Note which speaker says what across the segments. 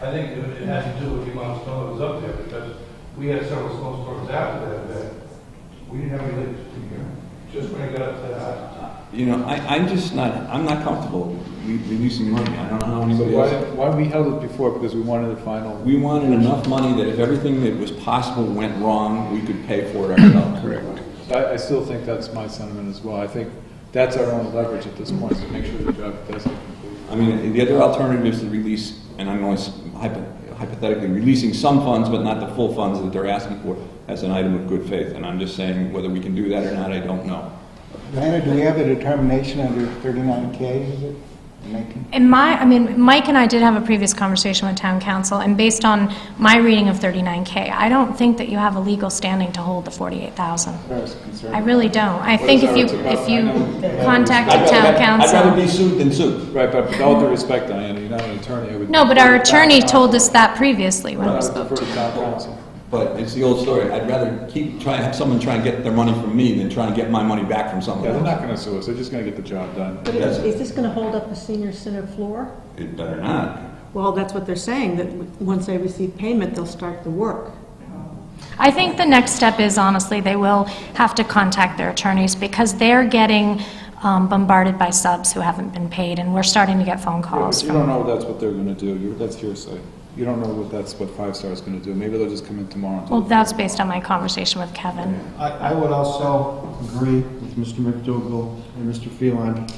Speaker 1: I think it it had to do with the amount of snow that was up there, because we had several snowstorms after that event. We didn't have any leaks in here, just when it got up to the house.
Speaker 2: You know, I, I'm just not, I'm not comfortable re- releasing money. I don't know how anybody
Speaker 3: Why,
Speaker 2: else.
Speaker 3: why we held it before, because we wanted the final.
Speaker 2: We wanted enough money that if everything that was possible went wrong, we could pay for it ourselves. Correct.
Speaker 3: I, I still think that's my sentiment as well. I think that's our only leverage at this point, to make sure the job does get completed.
Speaker 2: I mean, the other alternative is to release, and I'm only hypo- hypothetically releasing some funds, but not the full funds that they're asking for as an item of good faith. And I'm just saying whether we can do that or not, I don't know.
Speaker 4: Diana, do we have a determination under 39K, is it? Making-
Speaker 5: And my, I mean, Mike and I did have a previous conversation with town council, and based on my reading of 39K, I don't think that you have a legal standing to hold the 48,000.
Speaker 4: As far as concerned.
Speaker 5: I really don't. I think if you, if you
Speaker 2: I'd
Speaker 5: contacted
Speaker 2: rather
Speaker 5: town
Speaker 2: have- I'd rather
Speaker 5: council.
Speaker 2: be sued than sued.
Speaker 3: Right, but with all due respect, Diana, you're not an attorney, I would.
Speaker 5: No, but our attorney told us that previously when
Speaker 3: I
Speaker 5: we
Speaker 3: would
Speaker 5: spoke
Speaker 3: prefer to
Speaker 5: to him.
Speaker 3: town council.
Speaker 2: But it's the old story. I'd rather keep trying, have someone try and get their money from me than try and get my money back from someone
Speaker 3: Yeah, they're
Speaker 2: else.
Speaker 3: not gonna sue us, they're just gonna get the job done.
Speaker 6: But is is this going to hold up the senior center floor?
Speaker 2: It better not.
Speaker 6: Well, that's what they're saying, that w- once they receive payment, they'll start the work.
Speaker 5: I think the next step is honestly, they will have to contact their attorneys because they're getting um, bombarded by subs who haven't been paid, and we're starting to get phone
Speaker 3: Yeah,
Speaker 5: calls
Speaker 3: but You
Speaker 5: from
Speaker 3: don't know that's what they're gonna do, You- that's hearsay. You don't know what that's, what Five Star is gonna do, maybe they'll just come in tomorrow and. do
Speaker 5: Well,
Speaker 3: it.
Speaker 5: that's based on my conversation with Kevin.
Speaker 7: I, I would also agree with Mr. McDougal and Mr. Phelan.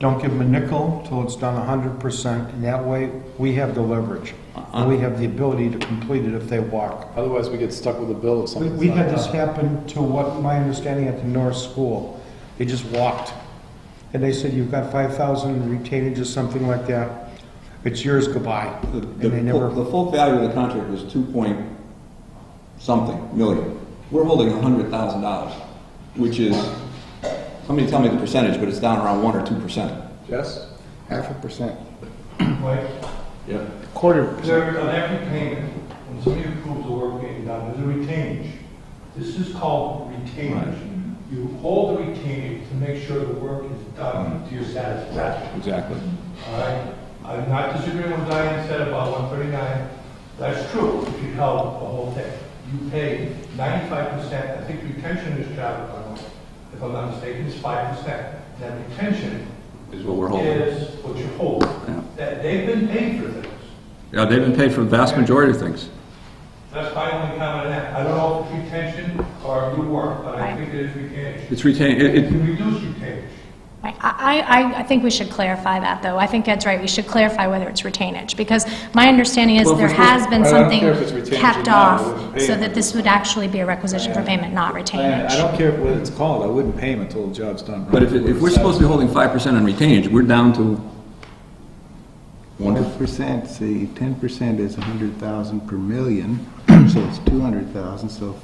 Speaker 7: Don't give them a nickel till it's done hundred percent, and that way, we have the leverage.
Speaker 2: Uh-huh.
Speaker 7: And we have the ability to complete it if they walk.
Speaker 3: Otherwise, we get stuck with a bill if
Speaker 7: We-
Speaker 3: something's
Speaker 7: We
Speaker 3: not
Speaker 7: had this
Speaker 3: done.
Speaker 7: happen to what my understanding at the North School. They just walked. And they said, you've got five thousand retainage or something like that. It's yours, goodbye.
Speaker 2: The-
Speaker 7: And
Speaker 2: The
Speaker 7: they never,
Speaker 2: full- the full value of the contract was two point something million. We're holding a hundred thousand dollars, which is, somebody tell me the percentage, but it's down around one or two percent.
Speaker 3: Yes?
Speaker 4: Half a percent.
Speaker 1: Like,
Speaker 2: Yep.
Speaker 4: Quarter percent.
Speaker 1: there, on every payment, when somebody approves the work being done, there's a retainage. This is called retainage. You hold the retainage to make sure the work is done to your satisfaction.
Speaker 3: Exactly.
Speaker 1: All right, I'm not disagreeing with what Diane said about 139. That's true, if you held the whole thing. You pay 95%, I think retention is job, if I'm not mistaken, is 5%. That retention
Speaker 2: Is what we're holding.
Speaker 1: is what you hold.
Speaker 2: Yeah.
Speaker 1: That, they've been paid for this.
Speaker 2: Yeah, they've been paid for the vast majority of things.
Speaker 1: That's my only comment on that. I don't know if it's retention or new work, but I
Speaker 5: Right.
Speaker 1: think it is retainage.
Speaker 2: It's retained, it,
Speaker 1: You
Speaker 2: it,
Speaker 1: can reduce retainage.
Speaker 5: Right. I, I, I think we should clarify that, though. I think Ed's right, we should clarify whether it's retainage, because my understanding is
Speaker 3: Well, if
Speaker 5: there
Speaker 3: it's re-
Speaker 5: has been
Speaker 3: I don't
Speaker 5: something
Speaker 3: care if it's retainage or
Speaker 5: kept
Speaker 3: not,
Speaker 5: off,
Speaker 3: it was paid.
Speaker 5: so that this would actually be a requisition for
Speaker 3: Yeah.
Speaker 5: payment, not
Speaker 3: I I
Speaker 5: retainage.
Speaker 3: don't care what it's called, I wouldn't pay him until the job's done.
Speaker 2: but if, it- if we're supposed to be holding five percent on retainage, we're down to one percent.
Speaker 4: One percent, see, ten percent is a hundred thousand per million, so it's two hundred thousand, so,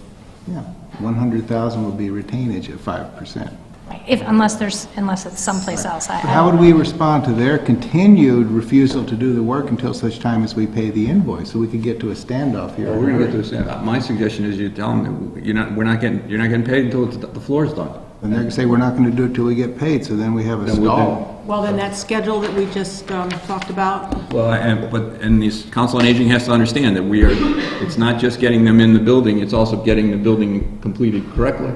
Speaker 4: yeah, one hundred thousand will be retainage at five percent.
Speaker 5: Right. If, unless there's, unless it's someplace else. I-
Speaker 4: But how would we respond to their continued refusal to do the work until such time as we pay the invoice? So we could get to a standoff here.
Speaker 2: We're gonna get to, a stand- my suggestion is you tell them, that you're not, we're not getting, you're not getting paid until it's- the floor is done.
Speaker 4: And they're gonna say, we're not gonna do it till we get paid, so then we have a
Speaker 2: Then we'll do-
Speaker 4: stall.
Speaker 6: Well, then that schedule that we just um, talked about,
Speaker 2: Well, and, but, and this council on aging has to understand that we are, it's not just getting them in the building, it's also getting the building completed correctly.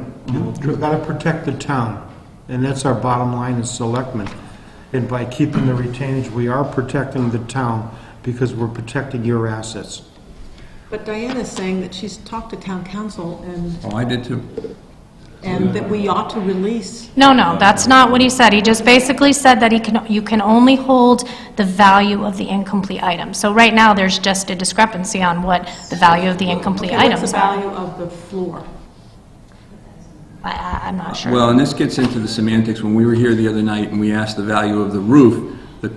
Speaker 7: we've got to protect the town. And that's our bottom line as selectmen. And by keeping the retainage, we are protecting the town because we're protecting your assets.
Speaker 6: but Diana's saying that she's talked to town council and,
Speaker 2: Oh, I did too.
Speaker 6: and that we ought to release.
Speaker 5: No, no, that's not what he said. He just basically said that he can, you can only hold the value of the incomplete item. So right now, there's just a discrepancy on what the value of the incomplete
Speaker 6: Okay,
Speaker 5: items
Speaker 6: what's
Speaker 5: are.
Speaker 6: the value of the floor?
Speaker 5: I, I- I'm not sure.
Speaker 2: Well, and this gets into the semantics, when we were here the other night and we asked the value of the roof, the-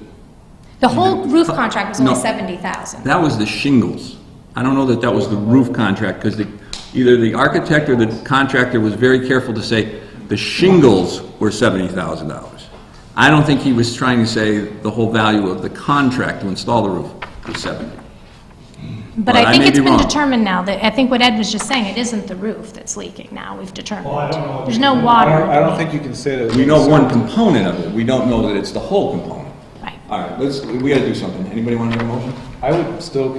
Speaker 5: The whole roof contract was only
Speaker 2: No.
Speaker 5: 70,000.
Speaker 2: that was the shingles. I don't know that that was the roof contract, because the, either the architect or the contractor was very careful to say the shingles were seventy thousand dollars. I don't think he was trying to say the whole value of the contract to install the roof was seventy.
Speaker 5: But
Speaker 2: Well, I
Speaker 5: I think
Speaker 2: may
Speaker 5: it's
Speaker 2: be
Speaker 5: been
Speaker 2: wrong.
Speaker 5: determined now that, I think what Ed was just saying, it isn't the roof that's leaking now, we've determined.
Speaker 1: Well, I don't know.
Speaker 5: There's no
Speaker 3: I don't, I
Speaker 5: water.
Speaker 3: don't think you can say that.
Speaker 2: We know one component of it, we don't know that it's the whole component.
Speaker 5: Right.
Speaker 2: All right, let's, we gotta do something. Anybody wanna make a motion?
Speaker 3: I would still